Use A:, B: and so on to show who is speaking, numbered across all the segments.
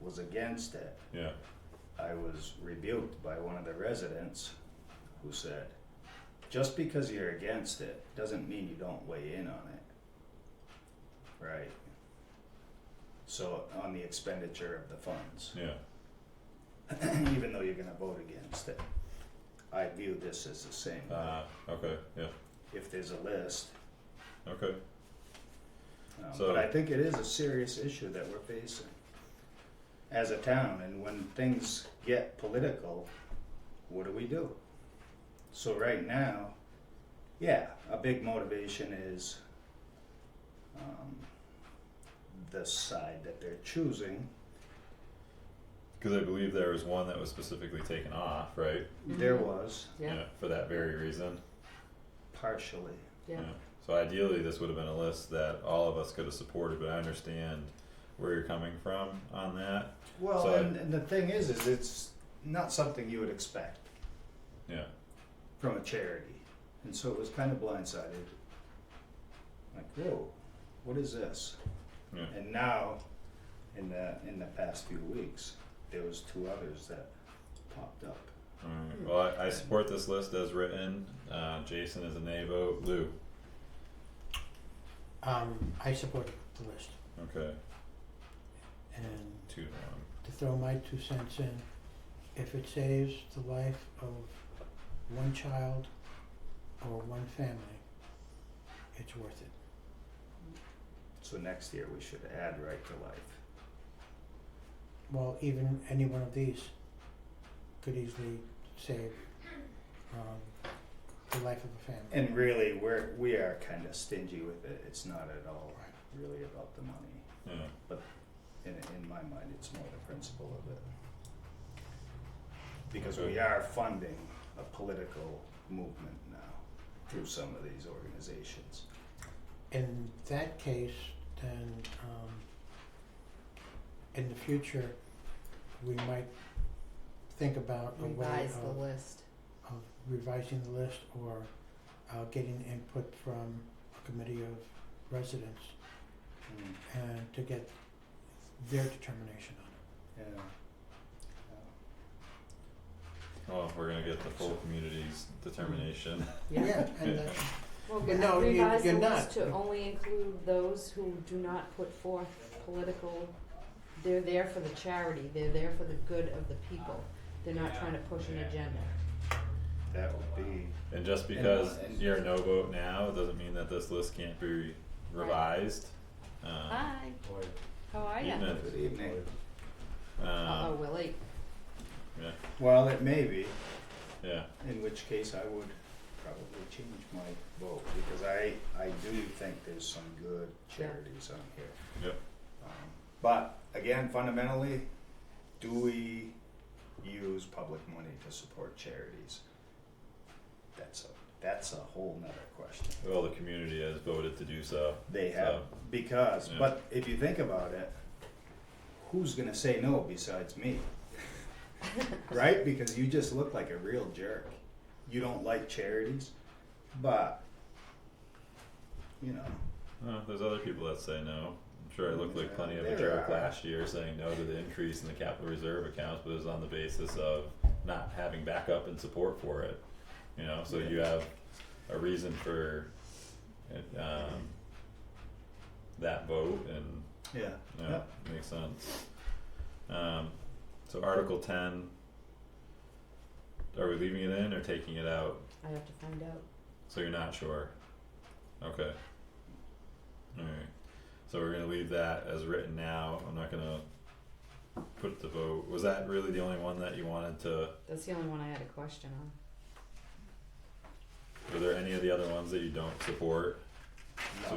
A: was against it.
B: yeah,
A: I was rebuked by one of the residents who said, just because you're against it doesn't mean you don't weigh in on it. Right? So, on the expenditure of the funds,
B: yeah,
A: even though you're gonna vote against it. I view this as the same.
B: uh, okay, yeah,
A: If there's a list,
B: okay,
A: Um,
B: So-
A: but I think it is a serious issue that we're facing as a town, and when things get political, what do we do? So right now, yeah, a big motivation is um, the side that they're choosing.
B: cause I believe there was one that was specifically taken off, right?
A: There
C: Mhm.
A: was
C: Yeah,
B: For that very reason.
A: partially,
C: yeah,
B: So ideally, this would have been a list that all of us could have supported, but I understand where you're coming from on that.
A: well,
B: So-
A: and, and the thing is, is it's not something you would expect.
B: Yeah,
A: from a charity. And so it was kind of blindsided. Like, whoa, what is this?
B: yeah,
A: And now, in the in the past few weeks, there was two others that popped up.
B: alright, well, I, I support this list as written, uh, Jason is a nay vote, Lou,
D: Um, I support the list,
B: okay,
D: and
B: two to one.
D: to throw my two cents in, if it saves the life of one child or one family, it's worth it.
A: So next year we should add right to life.
D: Well, even any one of these could easily save, um, the life of a family.
A: And really, we're we are kind of stingy with it. It's not at all
D: Right.
A: really about the money.
B: Yeah,
A: In in my mind, it's more the principle of it. Because we are funding a political movement now through some of these organizations.
D: in that case, then um in the future, we might think about a way
C: revise the
D: of
C: list.
D: of revising the list or uh getting input from a committee of residents
A: Mm,
D: and to get their determination on it.
A: Yeah.
B: well, if we're gonna get the full community's determination,
C: Yeah,
D: and that
E: Well,
D: But no, you-
E: revise
D: you're
E: the
D: not.
E: list to only include those who do not put forth political, they're there for the charity, they're there for the good of the people. They're not trying to push an agenda.
A: That would be,
B: and just because
A: And-
B: you're a no vote now, doesn't mean that this list can't be revised. Um,
E: Hi, how are ya?
B: even
A: good evening.
B: if,
E: Ah. Uh-oh,
B: um,
E: Willie.
B: yeah,
A: Well, it may be,
B: yeah,
A: in which case I would probably change my vote, because I, I do think there's some good charities on here.
B: Yep.
A: Um, But, again, fundamentally, do we use public money to support charities? That's a, that's a whole nother question.
B: well, the community has voted to do so,
A: They have,
B: So-
A: because,
B: Yeah.
A: but if you think about it, who's gonna say no besides me? right? Because you just look like a real jerk. You don't like charities, but, you know,
B: Uh, there's other people that say no. I'm sure I looked like plenty of a
A: Mm, There
B: jerk
A: are.
B: last year saying no to the increase in the capital reserve accounts, but it was on the basis of not having backup and support for it. You know, so you have a reason for it, um, that vote and
A: yeah.
B: yeah, makes sense. Um, so Article ten, are we leaving it in or taking it out?
E: I have to find out.
B: So you're not sure? Okay. Alright, so we're gonna leave that as written now, I'm not gonna put it to vote, was that really the only one that you wanted to,
E: That's the only one I had a question on.
B: were there any of the other ones that you don't support? So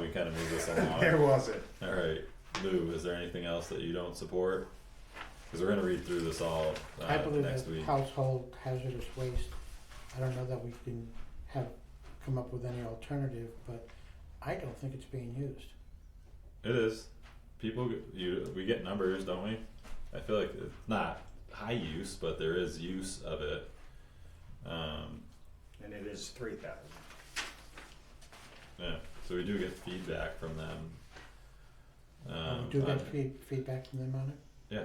B: we kinda move this
A: There
B: along,
A: wasn't.
B: alright, Lou, is there anything else that you don't support? Cause we're gonna read through this all
D: I
B: uh
D: believe
B: next
D: that
B: week,
D: household hazardous waste, I don't know that we can have, come up with any alternative, but I don't think it's being used.
B: it is, people, g- you, we get numbers, don't we? I feel like it's not high use, but there is use of it, um.
A: And it is three thousand.
B: Yeah, so we do get feedback from them.
D: We
B: Um,
D: Do
B: on-
D: get feed, feedback from them on it?
B: Yeah,